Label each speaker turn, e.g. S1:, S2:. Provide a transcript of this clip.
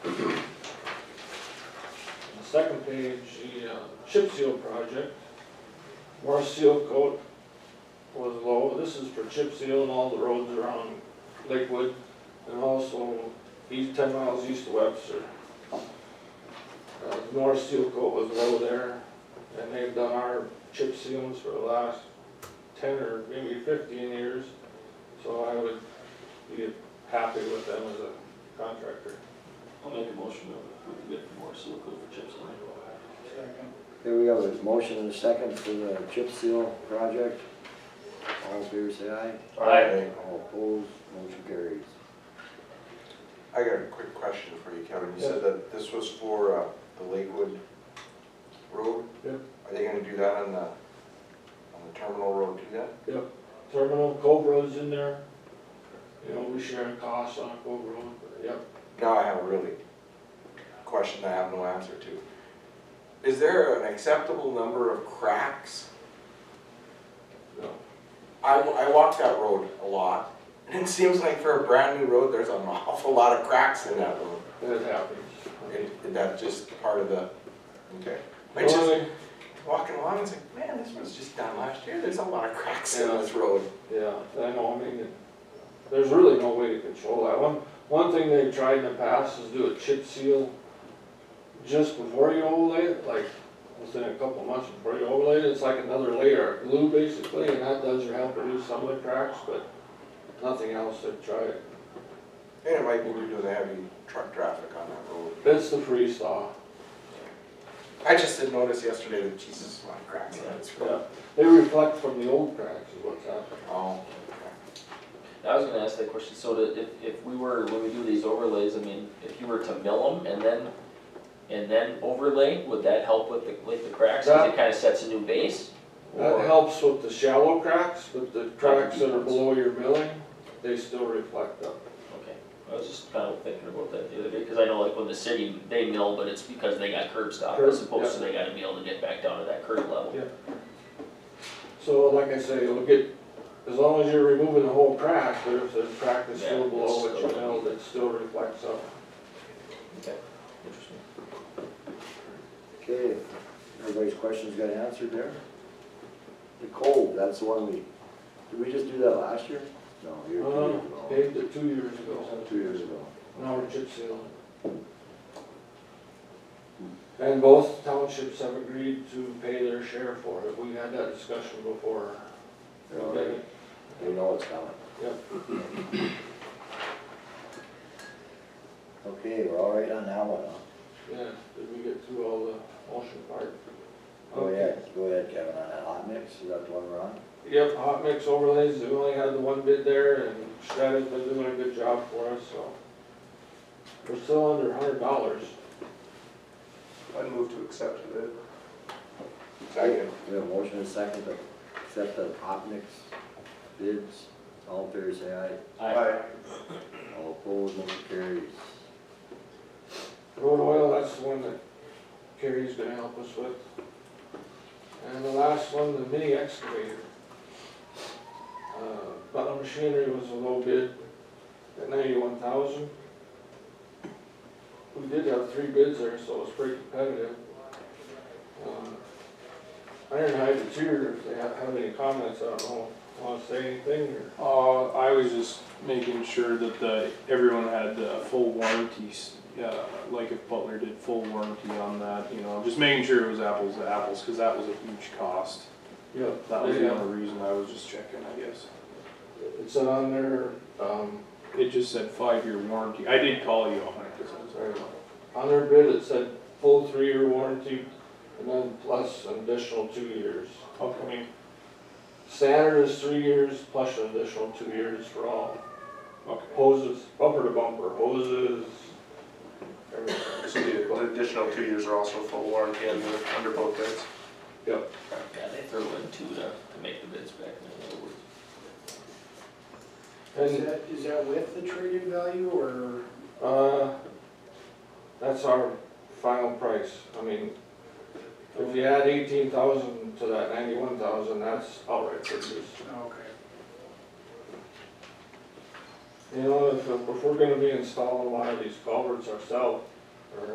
S1: Second page, the uh, chip seal project. More seal coat was low. This is for chip seal and all the roads around Lakewood and also east, ten miles east of Webster. Uh, North seal coat was low there and they've done our chip seals for the last ten or maybe fifteen years. So I would be happy with them as a contractor.
S2: I'll make a motion to approve the bid for more seal coat for chip seal.
S3: Here we have a motion and a second for the chip seal project. All in favor, say aye.
S2: Aye.
S3: All opposed, motion carries.
S4: I got a quick question for you, Kevin. You said that this was for uh, the Lakewood Road?
S1: Yeah.
S4: Are they gonna do that on the, on the terminal road too then?
S1: Terminal, Cove Road's in there. You know, we share costs on Cove Road, but yep.
S4: Now I have a really question I have no answer to. Is there an acceptable number of cracks?
S1: No.
S4: I, I walk that road a lot, and it seems like for a brand new road, there's an awful lot of cracks in that road.
S1: It happens.
S4: And that's just part of the, okay. I just-
S1: Only-
S4: walking along, it's like, man, this was just done last year. There's a lot of cracks in
S1: Yeah.
S4: this road.
S1: Yeah, I know, I mean, it- there's really no way to control that. One, one thing they've tried in the past is do a chip seal just before you overlay it, like within a couple months before you overlay it, it's like another layer of glue basically, and that does help reduce some of the cracks, but nothing else they've tried.
S4: And it might be due to the heavy truck traffic on that road.
S1: It's the freeze-thaw.
S4: I just did notice yesterday that Jesus, a lot of cracks in this
S1: Yeah,
S4: road.
S1: they reflect from the old cracks is what's happening.
S4: Oh,
S2: I was gonna ask that question, so that if, if we were, when we do these overlays, I mean, if you were to mill them and then, and then overlay, would that help with the, with the cracks? Cause it kinda sets a new base?
S1: That
S2: Or-
S1: helps with the shallow cracks, but the cracks that are below your milling, they still reflect up.
S2: Okay, I was just kind of thinking about that the other day, cause I know like when the city, they mill, but it's because they got curb stop,
S1: Curb,
S2: as opposed to they gotta be able to get back down to that curb level.
S1: Yeah. So like I say, it'll get, as long as you're removing the whole crack, but if the crack is
S2: Yeah,
S1: still
S2: it's
S1: below what you
S2: still-
S1: milled, it still reflects up.
S2: Interesting.
S3: Okay, everybody's questions got answered there? The cove, that's the one we, did we just do that last year? No, a year,
S1: Uh,
S3: two years ago.
S1: paved it two years ago,
S3: Two years ago.
S1: now we're chip sealing. And both townships have agreed to pay their share for it, we had that discussion before.
S3: They're already- They know it's coming.
S1: Yep.
S3: Okay, we're all right on that one, huh?
S1: Yeah, did we get through all the motion part?
S2: Oh,
S3: Go ahead, go ahead, Kevin, on that hot mix, is that the one we're on?
S1: Yep, hot mix overlays, we only had the one bid there, and Stratus been doing a good job for us, so. We're still under a hundred dollars.
S4: I move to accept it. Second.
S3: We have a motion and a second to accept the hot mix bids, all in favor, say aye. All opposed, motion carries.
S1: Road oil, that's the one that Kerry's gonna help us with. And the last one, the mini excavator. Uh, Butler Machinery was a low bid at ninety-one thousand. We did have three bids there, so it was pretty competitive. Um, Ironhide and Cheer, if they have, have any comments, I don't know, wanna say anything or?
S5: Uh, I was just making sure that the, everyone had the full warranties, uh, like if Butler did full warranty on that, you know, just making sure it was apples to apples, cause that was a huge cost.
S1: Yeah.
S5: That was the only reason I was just checking, I guess.
S1: It's on their, um,
S5: It just said five-year warranty. I did call you on it, cause I was
S1: Sorry. On their bid, it said full three-year warranty and then plus an additional two years.
S5: Okay.
S1: Standard is three years plus an additional two years for all
S5: Okay.
S1: hoses, bumper to bumper, hoses, everything.
S6: So the the additional two years are also full warranty under, under both bids?
S1: Yep.
S2: Yeah, they threw in two to, to make the bids back, in other words.
S1: And,
S7: that, is that with the trade-in value or?
S1: uh, that's our final price. I mean, if you add eighteen thousand to that ninety-one thousand, that's outright purchase.
S7: Okay.
S1: You know, if, if we're gonna be installing a lot of these culverts ourselves,